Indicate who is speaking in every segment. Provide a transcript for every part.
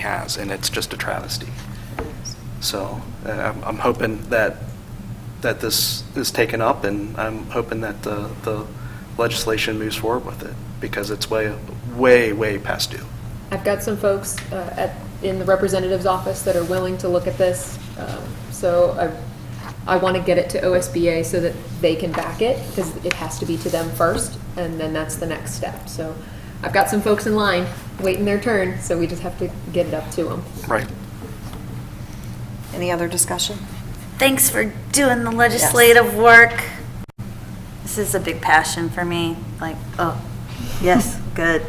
Speaker 1: has, and it's just a travesty. So uh, I'm I'm hoping that, that this is taken up, and I'm hoping that the the legislation moves forward with it, because it's way, way, way past due.
Speaker 2: I've got some folks uh, at, in the representative's office that are willing to look at this. um, So I, I want to get it to OSBA so that they can back it, because it has to be to them first, and then that's the next step. So I've got some folks in line, waiting their turn, so we just have to get it up to them.
Speaker 1: Right.
Speaker 3: Any other discussion?
Speaker 4: Thanks for doing the legislative work. This is a big passion for me, like, oh, yes, good.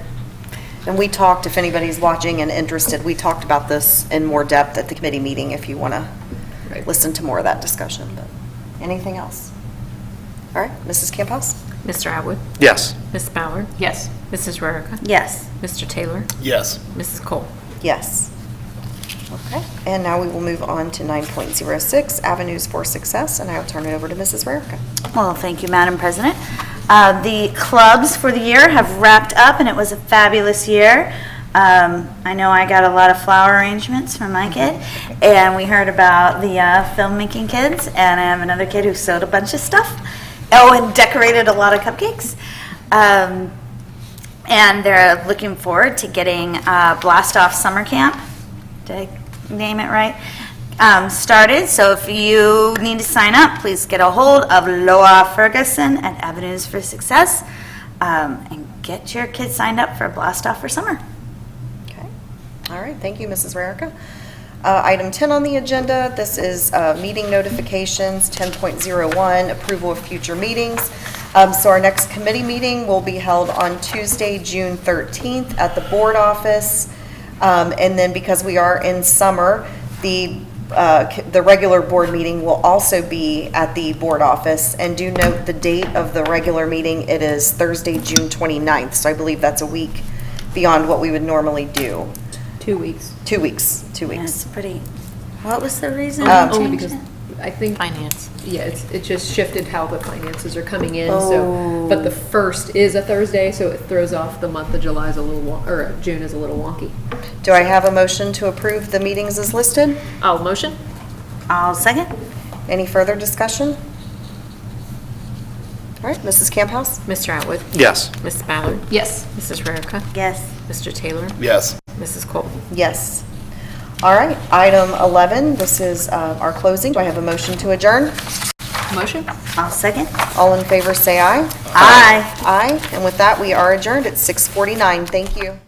Speaker 3: And we talked, if anybody's watching and interested, we talked about this in more depth at the committee meeting if you want to
Speaker 2: Right.
Speaker 3: listen to more of that discussion. But Anything else? All right, Mrs. Camp House?
Speaker 5: Mr. Atwood?
Speaker 1: Yes.
Speaker 5: Ms. Bauer? Yes. Mrs. Rarica?
Speaker 4: Yes.
Speaker 5: Mr. Taylor?
Speaker 6: Yes.
Speaker 5: Mrs. Cole?
Speaker 3: Yes. Okay, and now we will move on to 9.06, Avenues for Success, and I will turn it over to Mrs. Rarica.
Speaker 4: Well, thank you, Madam President. Uh, The clubs for the year have wrapped up, and it was a fabulous year. Um, I know I got a lot of flower arrangements from my kid, and we heard about the uh, filmmaking kids, and I have another kid who sewed a bunch of stuff. Oh, and decorated a lot of cupcakes. Um, And they're looking forward to getting uh, Blast Off Summer Camp did I name it right? Um, started, so if you need to sign up, please get a hold of Loa Ferguson at Avenues for Success um, and get your kids signed up for Blast Off for Summer.
Speaker 3: Okay. All right, thank you, Mrs. Rarica. Uh, Item 10 on the agenda, this is uh, meeting notifications, 10.01, approval of future meetings. Um, So our next committee meeting will be held on Tuesday, June 13th at the board office. Um, And then because we are in summer, the, uh, c- the regular board meeting will also be at the board office. And do note the date of the regular meeting, it is Thursday, June 29th, so I believe that's a week beyond what we would normally do.
Speaker 2: Two weeks.
Speaker 3: Two weeks, two
Speaker 4: Yeah,
Speaker 3: weeks.
Speaker 4: it's pretty. What was the reason? Oh,
Speaker 3: Um,
Speaker 4: we
Speaker 2: Only
Speaker 4: changed
Speaker 2: because
Speaker 4: it?
Speaker 2: I think,
Speaker 5: Finance.
Speaker 2: yeah, it's, it just shifted how the finances are coming in, so. But the first is a Thursday, so it throws off the month of July is a little, won- or June is a little wonky.
Speaker 3: Do I have a motion to approve the meetings as listed?
Speaker 2: I'll motion.
Speaker 4: I'll second.
Speaker 3: Any further discussion? All right, Mrs. Camp House?
Speaker 5: Mr. Atwood?
Speaker 1: Yes.
Speaker 5: Ms. Ballard?
Speaker 2: Yes.
Speaker 5: Mrs. Rarica?
Speaker 4: Yes.
Speaker 5: Mr. Taylor?
Speaker 6: Yes.
Speaker 5: Mrs. Cole?
Speaker 3: Yes. All right, item 11, this is uh, our closing. Do I have a motion to adjourn?
Speaker 2: Motion?
Speaker 4: I'll second.
Speaker 3: All in favor, say aye.
Speaker 4: Aye.
Speaker 3: Aye, and with that, we are adjourned at 6:49. Thank you.